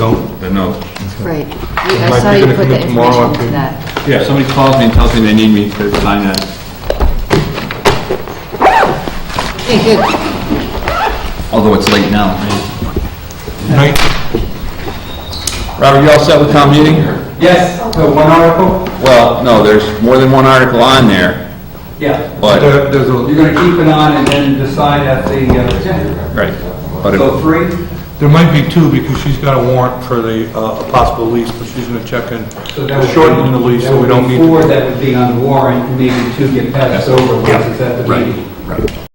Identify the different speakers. Speaker 1: no.
Speaker 2: Right. You-
Speaker 3: Mike,
Speaker 2: I
Speaker 3: you're
Speaker 2: saw you
Speaker 3: gonna
Speaker 2: put the
Speaker 3: commit tomorrow
Speaker 2: information into
Speaker 3: to-
Speaker 2: that.
Speaker 1: Yeah, if somebody calls me and tells me they need me to sign that,
Speaker 2: Okay, good.
Speaker 1: although it's late now.
Speaker 3: Night.
Speaker 1: Robert, you all set with town meeting?
Speaker 4: Yes, the one article?
Speaker 1: Well, no, there's more than one article on there,
Speaker 4: Yeah.
Speaker 1: but,
Speaker 3: There- There's a,
Speaker 4: You're gonna keep it on and then decide at the, uh,
Speaker 1: right. But
Speaker 4: so
Speaker 1: it-
Speaker 4: three?
Speaker 3: there might be two because she's got a warrant for the, uh, a possible lease, but she's gonna check in,
Speaker 4: So that would be-
Speaker 3: shortening the lease
Speaker 4: that
Speaker 3: so we
Speaker 4: would
Speaker 3: don't
Speaker 4: be
Speaker 3: need
Speaker 4: Four
Speaker 3: to.
Speaker 4: that would be on the warrant, maybe two get passed over once it's at the meeting.